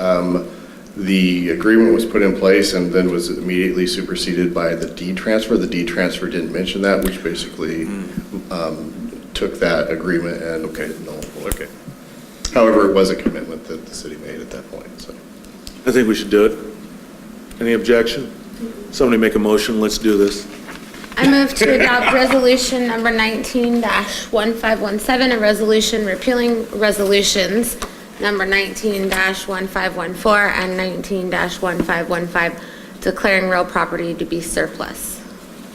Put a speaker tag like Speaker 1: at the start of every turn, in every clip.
Speaker 1: Um, The agreement was put in place and then was immediately superseded by the D transfer. The D transfer didn't mention that, which basically um, took that agreement and, okay, no, okay. However, it was a commitment that the city made at that point, so.
Speaker 2: I think we should do it. Any objection? Somebody make a motion, let's do this.
Speaker 3: I move to adopt resolution number nineteen one five one seven, a resolution repealing resolutions number nineteen one five one four and nineteen one five one five, declaring real property to be surplus.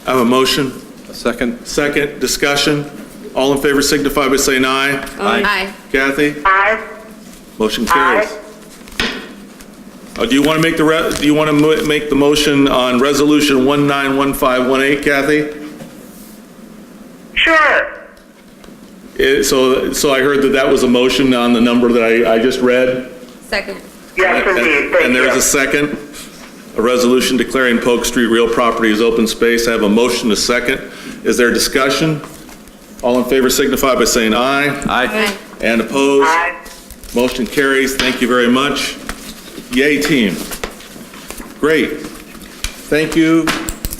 Speaker 2: I have a motion,
Speaker 4: A second?
Speaker 2: second, discussion. All in favor signify by saying aye.
Speaker 3: Aye.
Speaker 2: Kathy?
Speaker 5: Aye.
Speaker 2: Motion carries.
Speaker 5: Aye.
Speaker 2: Uh, Do you want to make the, re- do you want to make the motion on Resolution 191518, Kathy?
Speaker 5: Sure.
Speaker 2: Eh, So, so I heard that that was a motion on the number that I, I just read?
Speaker 3: Second.
Speaker 5: Yes, indeed. Thank
Speaker 2: And
Speaker 5: you.
Speaker 2: there's a second, a resolution declaring Polk Street real property as open space. I have a motion, a second. Is there discussion? All in favor signify by saying aye.
Speaker 3: Aye.
Speaker 2: And opposed?
Speaker 5: Aye.
Speaker 2: Motion carries. Thank you very much. Yay, team. Great. Thank you,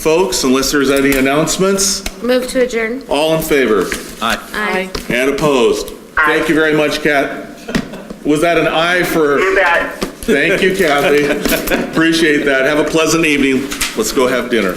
Speaker 2: folks, unless there's any announcements.
Speaker 3: Move to adjourn.
Speaker 2: All in favor
Speaker 4: Aye.
Speaker 3: Aye.
Speaker 2: and opposed? Thank you very much, Kat. Was that an aye for?
Speaker 5: You bet.
Speaker 2: Thank you, Kathy. Appreciate that. Have a pleasant evening. Let's go have dinner.